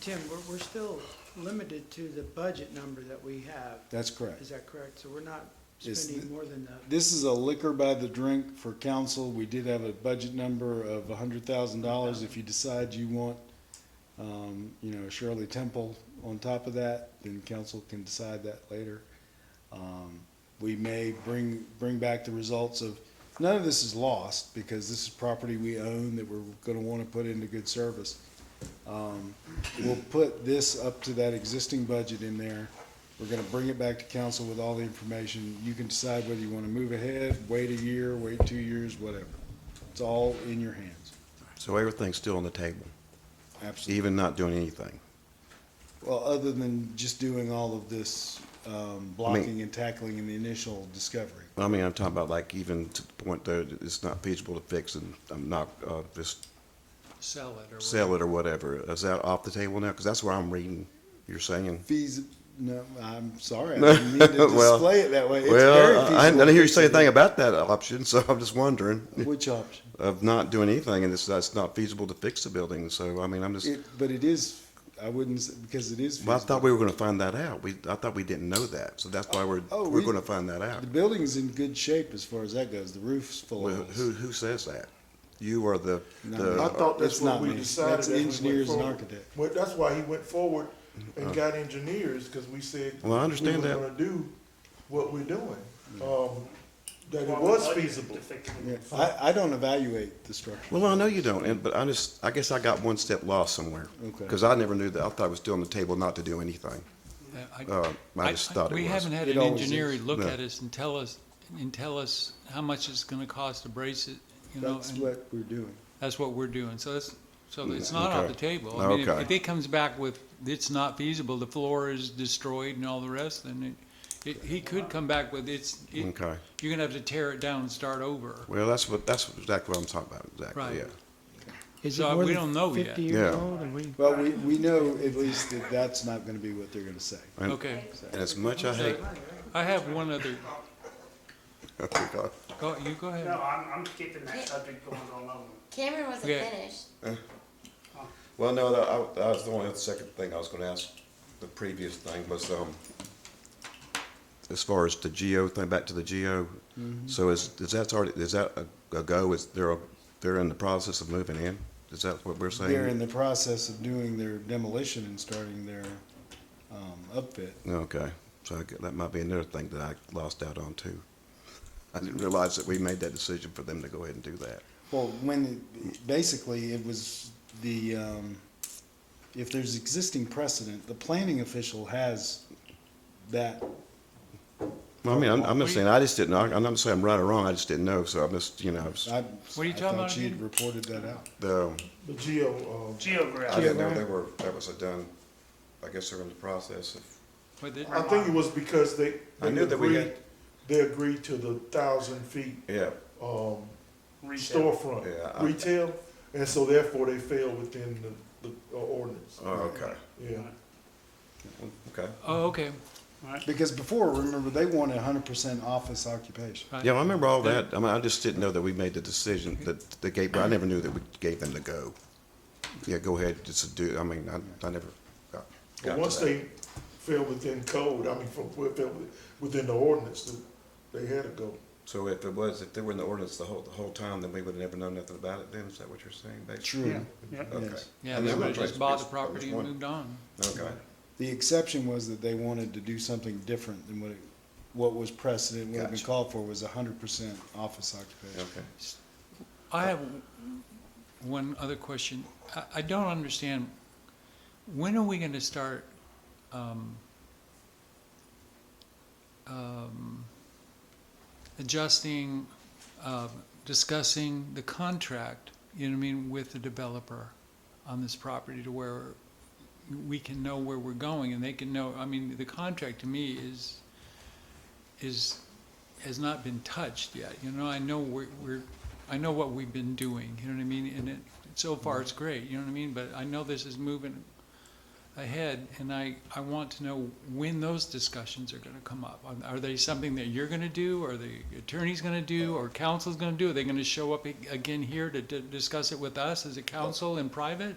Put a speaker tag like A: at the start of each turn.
A: Tim, we're, we're still limited to the budget number that we have,
B: That's
A: is
B: correct.
A: that correct? So we're not
B: Is
A: spending
B: the-
A: more than the,
B: This is a liquor by the drink for council. We did have a budget number of hundred thousand dollars. If you decide you want, um, you know, Shirley Temple on top of that, then council can decide that later. Um, we may bring, bring back the results of, none of this is lost because this is property we own that we're gonna wanna put into good service. Um, we'll put this up to that existing budget in there. We're gonna bring it back to council with all the information. You can decide whether you wanna move ahead, wait a year, wait two years, whatever. It's all in your hands.
C: So everything's still on the table,
B: Absolutely.
C: even not doing anything.
B: Well, other than just doing all of this, um, blocking and tackling in the initial discovery.
C: I mean, I'm talking about like even to the point though, that it's not feasible to fix and I'm not, uh, just
D: sell it or
C: sell it or whatever. Is that off the table now? Because that's where I'm reading, you're saying.
B: Fees, no, I'm sorry, I didn't mean to
C: Well-
B: display it that way. It's very
C: Well, I I
B: feasible
C: didn't hear you
B: to
C: say
B: fix it.
C: anything about that option, so I'm just wondering
B: Which option?
C: of not doing anything and it's, that's not feasible to fix the building. So, I mean, I'm just,
B: It, but it is, I wouldn't, s- because it is feasible.
C: well, I thought we were going to find that out. We, I thought we didn't know that. So that's why we're,
B: Oh,
C: we're
B: we-
C: going to find that out.
B: The building's in good shape as far as that goes. The roof's full
C: Well,
B: of
C: Who, who says that? You are the,
B: No,
C: the.
E: I thought Uh, that's
B: That's
E: what
B: not
E: we
B: me.
E: decided.
B: That's
E: as we went
B: engineers and
E: forward.
B: architect.
E: Well, that's why he went forward and got engineers, because we said.
C: Uh-huh. Well, I understand
E: We
C: that. Mm-hmm.
E: were gonna do what we're doing, um, that it was feasible.
B: Yeah, I, I don't evaluate the structure.
C: Well, I know you don't, and, but I just, I guess I got one step lost somewhere.
B: Okay.
C: Because I never knew that. I thought it was still on the table not to do anything. Uh, I just thought it
D: We
C: was.
D: haven't had
B: It
D: an
B: always
D: engineer
B: is.
D: look
C: No.
D: at us and tell us, and tell us how much it's gonna cost to brace it, you know,
B: That's
D: and
B: what we're doing.
D: that's what we're doing, so that's, so it's
C: Yeah,
D: not off
C: Mm, okay.
D: the table. I mean, if-
C: Okay.
D: If it comes back with, it's not feasible, the floor is destroyed and all the rest, then it, it, he could come back with, it's, it-
C: Okay.
D: you're gonna have to tear it down and start over.
C: Well, that's what, that's exactly what I'm talking about, exactly,
D: Right.
C: yeah.
A: is it more
D: So Uh, we
A: than
D: don't know yet.
A: fifty years
C: Yeah.
A: old and we?
B: Well, we, we know at least that that's not gonna be what they're gonna say.
C: And-
D: Okay.
C: And as much I hate,
D: I have one other,
C: okay,
D: go, you go ahead.
F: No, I'm, I'm keeping that subject going all over.
G: Cameron wasn't
D: Okay.
G: finished.
C: well, no, that, I, that was the only, other second thing I was gonna ask, the previous thing was, um, as far as the geo thing, back to the geo, so is, is that's already, is that a, a go, is there a, they're in the process of moving in? Is that what we're saying?
B: They're in the process of doing their demolition and starting their, um, upfit.
C: Okay, so I gu- that might be another thing that I lost out on too. I didn't realize that we made that decision for them to go ahead and do that.
B: Well, when, it- basically, it was the, um, if there's existing precedent, the planning official has that
C: Well, I mean, I'm, I'm just saying, I just didn't, know. I'm not saying I'm right or wrong, I just didn't know, so I'm just, you know, I was-
B: I,
D: are
B: I
D: you talking
B: thought
D: about
B: she had
D: again?
B: reported that out.
C: the,
E: The geo, um,
C: I
F: Geographic.
C: didn't know they were, that was a done, I guess they're in the process of,
D: With it-
E: I think it was because they,
C: I
E: they
C: knew that we
E: agreed,
C: had-
E: they agreed to the thousand feet,
C: yeah,
E: um,
F: Retail.
C: Yeah,
E: storefront
C: I-
E: retail, and so therefore they fell within the, the ordinance.
C: oh, okay,
E: Yeah.
C: okay.
D: Oh, okay,
B: Because before, remember, they wanted hundred percent office occupation.
D: right.
C: Yeah, I remember all that, I mean, I just didn't know that we made the decision that the gate, I never knew that we gave them the go. Yeah, go ahead, just do, I mean, I, I never got. got
E: But
C: to
E: once
C: that.
E: they fell within code, I mean, from, fell within the ordinance, they had to go.
C: So if it was, if they were in the ordinance the whole, the whole time, then we would have never known nothing about it then, is that what you're saying, basically?
B: True.
F: Yeah.
C: Okay.
B: Yes.
D: Yeah,
C: And
D: they
C: then
D: would have
C: one place-
D: just bought the
C: place-
D: property
C: which
D: and
C: one?
D: moved on.
C: Okay,
B: The exception was that they wanted to do something different than what it, what was precedent, what had been
C: Gotcha.
B: called for was hundred percent office occupation.
C: okay.
D: I have one other question. I, I don't understand, when are we gonna start, um, um, adjusting, uh, discussing the contract, you know what I mean, with the developer on this property to where we can know where we're going and they can know, I mean, the contract to me is, is, has not been touched yet, you know, I know we're, we're, I know what we've been doing, you know what I mean, and it, so far it's great, you know what I mean, but I know this is moving ahead, and I, I want to know when those discussions are gonna come up. Are- Are they something that you're gonna do, or the attorney's gonna do, or counsel's gonna do, are they gonna show up ag- again here to, to discuss it with us as a council in private?